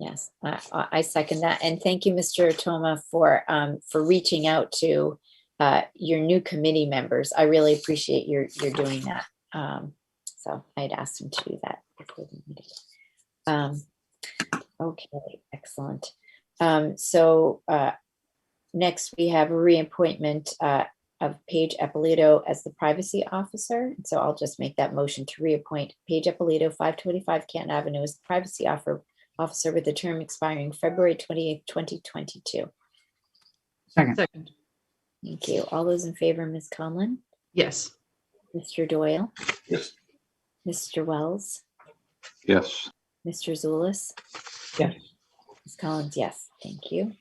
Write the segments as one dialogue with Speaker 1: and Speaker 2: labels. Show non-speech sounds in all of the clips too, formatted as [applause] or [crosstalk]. Speaker 1: Yes, I, I I second that. And thank you, Mr. Toma, for, um, for reaching out to, uh, your new committee members. I really appreciate your, your doing that. Um, so I'd asked him to do that. before the meeting. Um, okay, excellent. Um, so, uh, next we have reappointment, uh, of Paige Eppolito as the privacy officer. And So I'll just make that motion to reappoint Paige Eppolito, five twenty-five Canton Avenue as privacy officer officer with a term expiring February twenty-eighth, twenty twenty-two.
Speaker 2: Second,
Speaker 3: Second,
Speaker 1: Thank you. All those in favor, Ms. Conlon,
Speaker 3: yes.
Speaker 1: Mr. Doyle,
Speaker 4: Yes.
Speaker 1: Mr. Wells,
Speaker 4: Yes.
Speaker 1: Mr. Zulus.
Speaker 2: Yes.
Speaker 1: Ms. Collins, yes, thank you.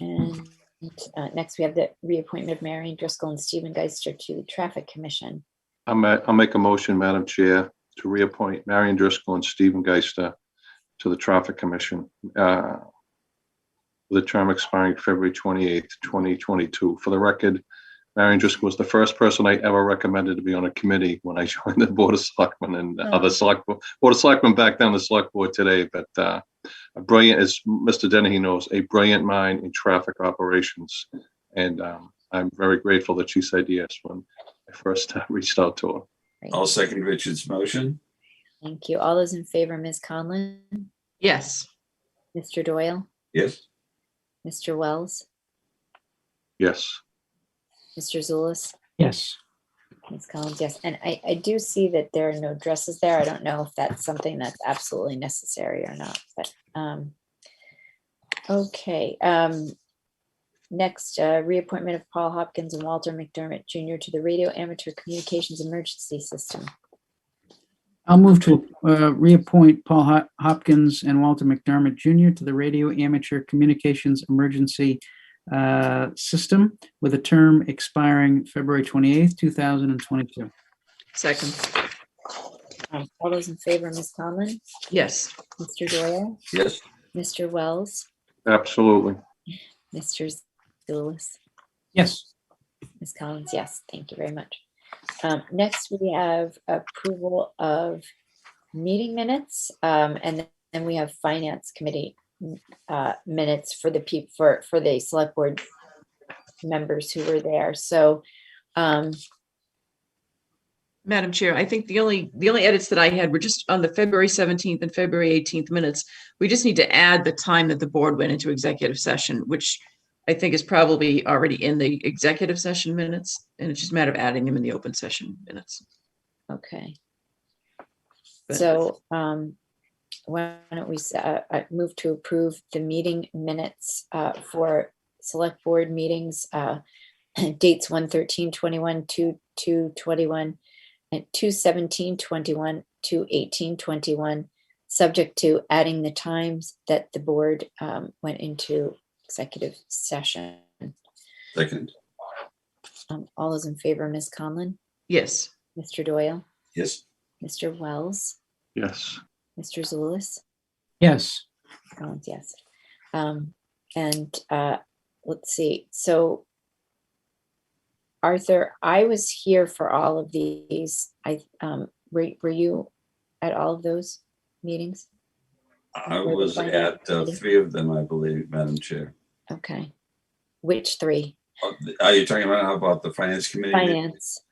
Speaker 1: And uh, next we have the reappointment of Marion Driscoll and Stephen Geister to the Traffic Commission.
Speaker 4: I'm, a- I'll make a motion, Madam Chair, to reappoint Marion Driscoll and Stephen Geister to the Traffic Commission. uh, with The term expiring February 28th, 2022. For the record, Marion Driscoll was the first person I ever recommended to be on a committee when I [laughs] joined the Board of Selectmen and
Speaker 1: Oh.
Speaker 4: other select, Bo- Board of Selectmen back then, the Select Board today, but uh, a brilliant, as Mr. Dennehy knows, a brilliant mind in traffic operations. And um, I'm very grateful that she said yes when I first uh, reached out to her.
Speaker 1: Great.
Speaker 5: I'll second Richard's motion.
Speaker 1: Thank you. All those in favor, Ms. Conlon,
Speaker 3: Yes,
Speaker 1: Mr. Doyle,
Speaker 5: Yes,
Speaker 1: Mr. Wells,
Speaker 4: Yes,
Speaker 1: Mr. Zulus.
Speaker 2: yes,
Speaker 1: Ms. Collins, yes, and I, I do see that there are no dresses there. I don't know if that's something that's absolutely necessary or not, but, um, okay, um, next, uh, reappointment of Paul Hopkins and Walter McDermott Jr. to the Radio Amateur Communications Emergency System.
Speaker 2: I'll move to uh, reappoint Paul Ho- Hopkins and Walter McDermott Jr. to the Radio Amateur Communications Emergency uh, System with a term expiring February 28th, 2022.
Speaker 3: second,
Speaker 1: Um, All those in favor, Ms. Conlon,
Speaker 3: yes,
Speaker 1: Mr. Doyle,
Speaker 5: yes,
Speaker 1: Mr. Wells,
Speaker 4: absolutely.
Speaker 1: Mr. Zulus.
Speaker 2: Yes,
Speaker 1: Ms. Collins, yes, thank you very much. Um, Next, we have approval of meeting minutes, um, and then we have Finance Committee uh, minutes for the people, for, for the Select Board members who were there, so, um,
Speaker 3: Madam Chair, I think the only, the only edits that I had were just on the February 17th and February 18th minutes. We just need to add the time that the board went into executive session, which I think is probably already in the executive session minutes, and it's just a matter of adding them in the open session minutes.
Speaker 1: okay.
Speaker 3: But-
Speaker 1: So um, why don't we s- uh, uh, move to approve the meeting minutes uh, for select board meetings, uh, [clears throat] dates 113, 21, 2, 2, 21, and 2, 17, 21, 2, 18, 21, subject to adding the times that the board um, went into executive session.
Speaker 5: second,
Speaker 1: Um, All those in favor, Ms. Conlon,
Speaker 3: Yes,
Speaker 1: Mr. Doyle,
Speaker 5: yes,
Speaker 1: Mr. Wells,
Speaker 4: Yes,
Speaker 1: Mr. Zulus?
Speaker 2: yes,
Speaker 1: Collins, yes. Um, and, uh, let's see, so Arthur, I was here for all of these. I, um, were, were you at all of those meetings?
Speaker 5: I was at uh, three of them, I believe, Madam Chair.
Speaker 1: Okay. Which three?
Speaker 5: Are you talking about how about the Finance Committee?
Speaker 1: Finance.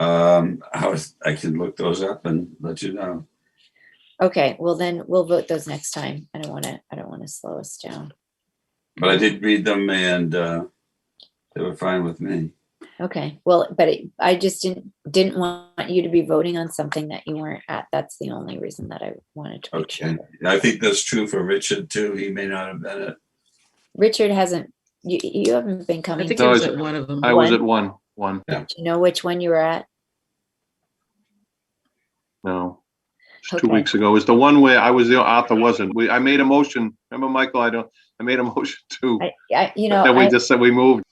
Speaker 5: Um, I was, I can look those up and let you know.
Speaker 1: Okay, well then we'll vote those next time. I don't want to, I don't want to slow us down.
Speaker 5: But I did read them and uh, they were fine with me.
Speaker 1: Okay, well, but it- I just didn't, didn't want you to be voting on something that you weren't at. That's the only reason that I wanted to make sure.
Speaker 5: Okay. And I think that's true for Richard too. He may not have been it.
Speaker 1: Richard hasn't, you, you haven't been
Speaker 3: I
Speaker 1: coming.
Speaker 3: think
Speaker 1: Do
Speaker 3: I
Speaker 4: No,
Speaker 3: was
Speaker 4: it's-
Speaker 3: at one of them.
Speaker 4: I was
Speaker 1: One.
Speaker 4: at one, one,
Speaker 1: you know which one you were at?
Speaker 4: no. It's two
Speaker 1: Okay.
Speaker 4: weeks ago. It was the one where I was, the Arthur wasn't. We, I made a motion. Remember, Michael, I don't, I made a [laughs] motion to,
Speaker 1: I, I, you know,
Speaker 4: and we
Speaker 1: I,
Speaker 4: just said we moved.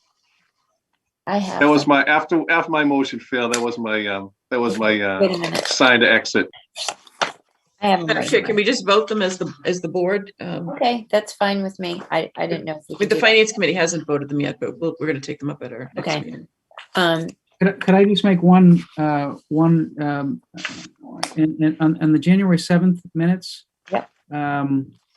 Speaker 1: I have.
Speaker 4: That was
Speaker 1: them.
Speaker 4: my, after, after my motion failed, that was my, um, that was my,
Speaker 1: Wait
Speaker 4: uh,
Speaker 1: a minute,
Speaker 4: sign to exit.
Speaker 1: I
Speaker 3: [laughs]
Speaker 1: have. them
Speaker 3: Madam
Speaker 1: right
Speaker 3: Chair, can
Speaker 1: here.
Speaker 3: we just vote them as the, as the board? Um,
Speaker 1: Okay, that's fine with me. I, I didn't know. if we
Speaker 3: But
Speaker 1: could
Speaker 3: the
Speaker 1: do that.
Speaker 3: Finance Committee hasn't voted them yet, but we'll- we're going to take them up at our
Speaker 1: Okay.
Speaker 3: next meeting.
Speaker 1: Um,
Speaker 2: Could I- could I just make one, uh, one, um, in, in, on on the January 7th minutes?
Speaker 1: Yep.
Speaker 2: Um,